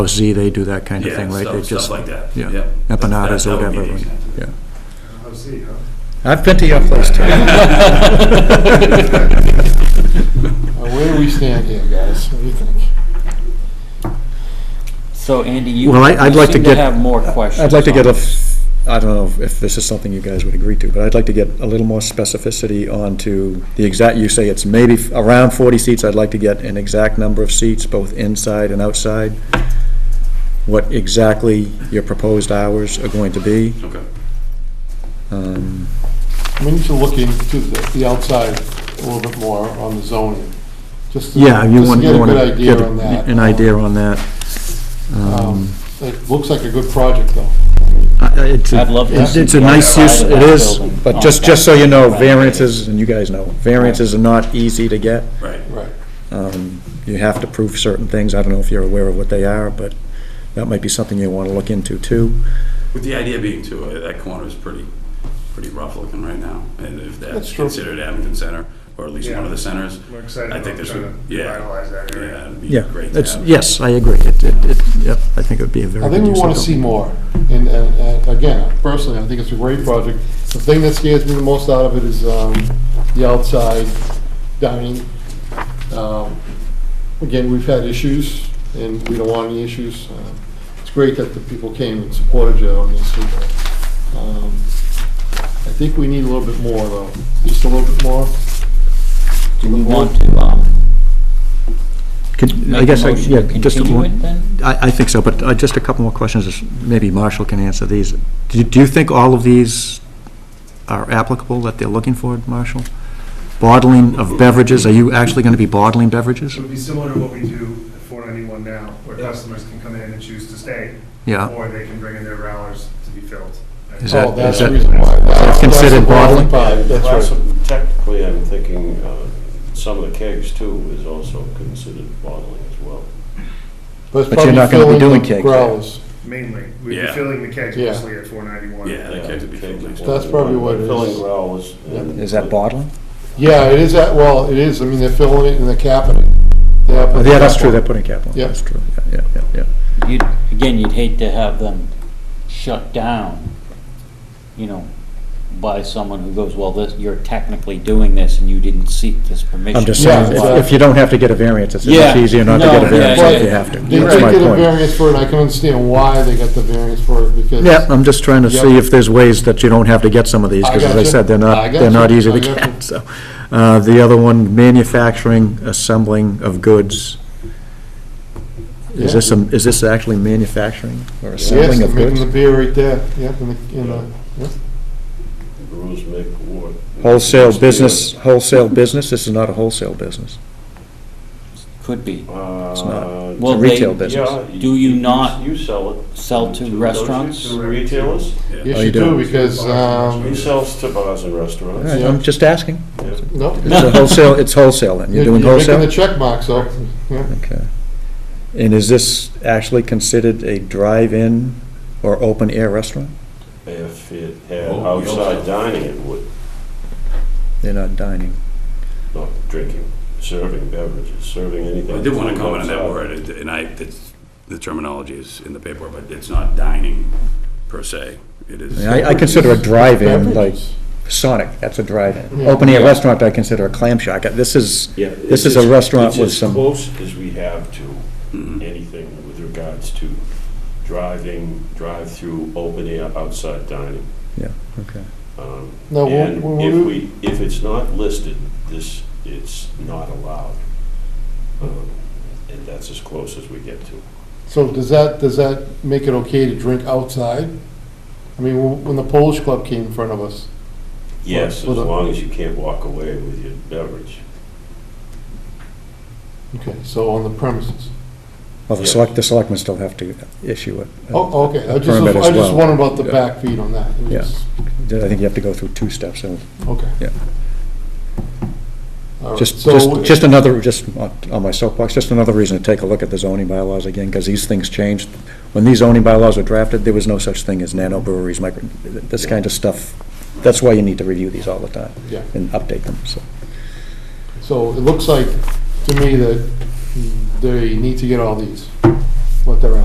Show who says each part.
Speaker 1: or Z, they do that kind of thing, right?
Speaker 2: stuff-
Speaker 1: They just
Speaker 2: Stuff like that.
Speaker 1: yeah,
Speaker 2: Yep. That-
Speaker 1: empanadas
Speaker 2: that-
Speaker 1: or
Speaker 2: that would be
Speaker 1: whatever.
Speaker 2: the example.
Speaker 1: Yeah.
Speaker 3: I'll see, huh?
Speaker 4: I've been to your place too.
Speaker 3: Well,
Speaker 5: Where do we stand here, guys? What do you think?
Speaker 6: So Andy, you
Speaker 4: Well, I- I'd
Speaker 6: you
Speaker 4: like to
Speaker 6: seem
Speaker 4: get.
Speaker 6: to have more questions.
Speaker 4: I'd like to
Speaker 6: on
Speaker 4: get a,
Speaker 6: this.
Speaker 4: f- I don't know if this is something you guys would agree to, but I'd like to get a little more specificity onto the exact, you say it's maybe f- around 40 seats. I'd like to get an exact number of seats, both inside and outside. What exactly your proposed hours are going to be.
Speaker 2: Okay.
Speaker 4: Um,
Speaker 5: We need to look into the the outside a little bit more on the zoning. Just to-
Speaker 4: Yeah, you
Speaker 5: just to
Speaker 4: want, you want to
Speaker 5: Get a
Speaker 4: get
Speaker 5: good idea on that.
Speaker 4: an idea on that. Um,
Speaker 5: Um, It looks like a good project, though.
Speaker 4: I- I- it's a-
Speaker 6: I'd love to
Speaker 4: it's-
Speaker 6: see
Speaker 4: It's a
Speaker 6: the
Speaker 4: nice
Speaker 6: outside
Speaker 4: use,
Speaker 6: of
Speaker 4: it
Speaker 6: that
Speaker 4: is,
Speaker 6: building.
Speaker 4: but
Speaker 6: Oh,
Speaker 4: just, just so you know,
Speaker 6: that's-
Speaker 4: variances, and you guys know, variances are not easy to get.
Speaker 2: Right.
Speaker 5: Right.
Speaker 4: Um, You have to prove certain things, I don't know if you're aware of what they are, but that might be something you want to look into too.
Speaker 2: With the idea being too, uh, that corner is pretty, pretty rough looking right now. And if
Speaker 5: That's
Speaker 2: that's
Speaker 5: true.
Speaker 2: considered Abington Center, or at least one
Speaker 3: Yeah.
Speaker 2: of the centers,
Speaker 3: We're excited
Speaker 2: I think
Speaker 3: about
Speaker 2: this
Speaker 3: trying
Speaker 2: would,
Speaker 3: to
Speaker 2: yeah,
Speaker 3: finalize that area.
Speaker 2: yeah, it'd be
Speaker 4: Yeah,
Speaker 2: great to
Speaker 4: it's,
Speaker 2: have.
Speaker 4: yes, I agree, it, it, it- yep, I think it would be a very
Speaker 5: I
Speaker 4: good
Speaker 5: think we
Speaker 4: use of
Speaker 5: want to
Speaker 4: it.
Speaker 5: see more. And, uh, uh, again, personally, I think it's a great project. The thing that scares me the most out of it is um, the outside dining. Um, Again, we've had issues, and we don't want any issues. Um, It's great that the people came and supported you on this. but, um, I think we need a little bit more, though, just a little bit more. Oh,
Speaker 6: Do we want to um,
Speaker 4: Could- I
Speaker 6: make a
Speaker 4: guess, I-
Speaker 6: motion
Speaker 4: yeah,
Speaker 6: to
Speaker 4: just, a
Speaker 6: continue
Speaker 4: one-
Speaker 6: it then?
Speaker 4: I, I think so, but uh, just a couple more questions, is- maybe Marshall can answer these. Do you- do you think all of these are applicable that they're looking for, Marshall? Bottling of beverages, are you actually going to be bottling beverages?
Speaker 3: It would be similar to what we do at 491 now, where customers can come in and choose to stay,
Speaker 4: Yeah,
Speaker 3: or they can bring in their growlers to be filled.
Speaker 4: Is that-
Speaker 5: Oh, that's the
Speaker 4: that-
Speaker 5: reason why. That's- that's
Speaker 4: considered
Speaker 5: the
Speaker 4: bottling?
Speaker 5: bottling part, That's right.
Speaker 7: Well, so Technically, I'm thinking uh, some of the kegs too is also considered bottling as well.
Speaker 5: it's
Speaker 4: But you're not gonna be
Speaker 5: probably filling
Speaker 4: doing
Speaker 5: the
Speaker 4: kegs.
Speaker 5: Growlers.
Speaker 3: Mainly, we'd be
Speaker 2: Yeah.
Speaker 3: filling the kegs
Speaker 5: Yeah.
Speaker 3: mostly at 491.
Speaker 2: Yeah, the kegs would be filled next
Speaker 5: That's probably what it is.
Speaker 7: Filling growlers. and-
Speaker 4: is that bottling?
Speaker 5: Yeah, it is, that. well, it is, I mean, they're filling it and they're capping it. They have-
Speaker 4: Oh, Yeah, that's true, they're putting cap on, it.
Speaker 5: Yeah.
Speaker 4: that's true, yeah, yeah, yeah, yeah.
Speaker 6: You'd- Again, you'd hate to have them shut down, you know, by someone who goes, well, this, you're technically doing this and you didn't seek this permission.
Speaker 4: I'm just
Speaker 5: Yeah,
Speaker 4: saying,
Speaker 5: exactly.
Speaker 4: if- if you don't have to get a variance, it's
Speaker 6: Yeah.
Speaker 4: much easier not to
Speaker 6: No,
Speaker 4: get a
Speaker 6: yeah,
Speaker 4: variance
Speaker 6: yeah,
Speaker 4: if you
Speaker 6: yeah.
Speaker 4: have to.
Speaker 5: They did
Speaker 4: That's my
Speaker 5: get a
Speaker 4: point.
Speaker 5: variance for it, I can understand why they got the variance for it, because.
Speaker 4: Yeah, I'm just trying to see if there's ways that you don't have to get some of these, because as I
Speaker 5: gotcha.
Speaker 4: said, they're
Speaker 5: I
Speaker 4: not, they're not
Speaker 5: gotcha.
Speaker 4: easy
Speaker 5: I
Speaker 4: to
Speaker 5: gotcha.
Speaker 4: get, so. Uh, The other one, manufacturing, assembling of goods. Is
Speaker 5: Yeah.
Speaker 4: this, some- is this actually manufacturing or
Speaker 5: Yes,
Speaker 4: assembling
Speaker 5: they're
Speaker 4: of
Speaker 5: making the
Speaker 4: goods? Oh,
Speaker 5: beer right there, yep, in the, in the, yep.
Speaker 7: Brews make war.
Speaker 4: Wholesale business, wholesale business, this is not a wholesale business.
Speaker 6: Could be.
Speaker 4: It's not,
Speaker 7: Uh,
Speaker 4: it's a
Speaker 6: Well,
Speaker 4: retail
Speaker 6: they-
Speaker 4: business.
Speaker 7: yeah, you-
Speaker 6: Do you
Speaker 7: you-
Speaker 6: not
Speaker 7: You sell it.
Speaker 6: Sell
Speaker 7: don't
Speaker 6: to
Speaker 7: you?
Speaker 6: restaurants?
Speaker 7: To retailers?
Speaker 5: Yes,
Speaker 4: Oh, you
Speaker 5: you
Speaker 4: do.
Speaker 5: do, because,
Speaker 7: He
Speaker 5: um,
Speaker 7: sells to bars and
Speaker 4: All
Speaker 7: restaurants.
Speaker 4: right, I'm just asking.
Speaker 7: Yeah.
Speaker 5: no.
Speaker 4: It's a wholesale, it's wholesale then, you're doing wholesale?
Speaker 5: Making the check mark, so, yeah.
Speaker 4: Okay. And is this actually considered a drive-in or open-air restaurant?
Speaker 7: If it had
Speaker 2: Oh, we also-
Speaker 7: outside dining, it would,
Speaker 4: They're not dining.
Speaker 7: not drinking, serving beverages, serving anything.
Speaker 2: I did want to
Speaker 7: food
Speaker 2: comment on that
Speaker 7: outside.
Speaker 2: word, it- and I, it's, the terminology is in the paperwork, but it's not dining per se. It
Speaker 4: I
Speaker 2: is.
Speaker 4: mean, I I consider a drive-in like
Speaker 5: Beverages.
Speaker 4: Sonic, that's a drive-in.
Speaker 5: Yeah.
Speaker 4: Open-air restaurant, I consider a clam shack. This is,
Speaker 7: Yeah,
Speaker 4: this is
Speaker 7: it's
Speaker 4: a
Speaker 7: as-
Speaker 4: restaurant with
Speaker 7: It's as
Speaker 4: some,
Speaker 7: close as we have to
Speaker 5: Mm-hmm.
Speaker 2: Mhm.
Speaker 7: anything with regards to driving, drive-through, open-air, outside dining.
Speaker 4: yeah, okay.
Speaker 7: Um,
Speaker 5: No, when-
Speaker 7: And
Speaker 5: when
Speaker 7: if
Speaker 5: we-
Speaker 7: we, if it's not listed, this, it's not allowed. Um, And that's as close as we get to.
Speaker 5: So does that, does that make it okay to drink outside? I mean, when when the Polish Club came in front of us,
Speaker 7: Yes, as
Speaker 5: Well, the-
Speaker 7: long as you can't walk away with your beverage.
Speaker 5: okay, so on the premises.
Speaker 4: Well, the
Speaker 7: Yes.
Speaker 4: select, the selectmen still have to issue it. Uh,
Speaker 5: Oh, okay, I just,
Speaker 4: Permit as
Speaker 5: I just
Speaker 4: well.
Speaker 5: wondered about the
Speaker 4: Yeah.
Speaker 5: back feed on that. It was-
Speaker 4: Yeah. I think you have to go through two steps, so
Speaker 5: Okay.
Speaker 4: Yeah.
Speaker 5: All right,
Speaker 4: Just,
Speaker 5: Oh, so-
Speaker 4: just, just another, just on on my soapbox, just another reason to take a look at the zoning bylaws again, because these things changed. When these zoning bylaws were drafted, there was no such thing as nano breweries, micro, this kind of stuff. That's why you need to review these all the time.
Speaker 5: Yeah.
Speaker 4: And update them, so.
Speaker 5: So it looks like to me that they need to get all these, what they're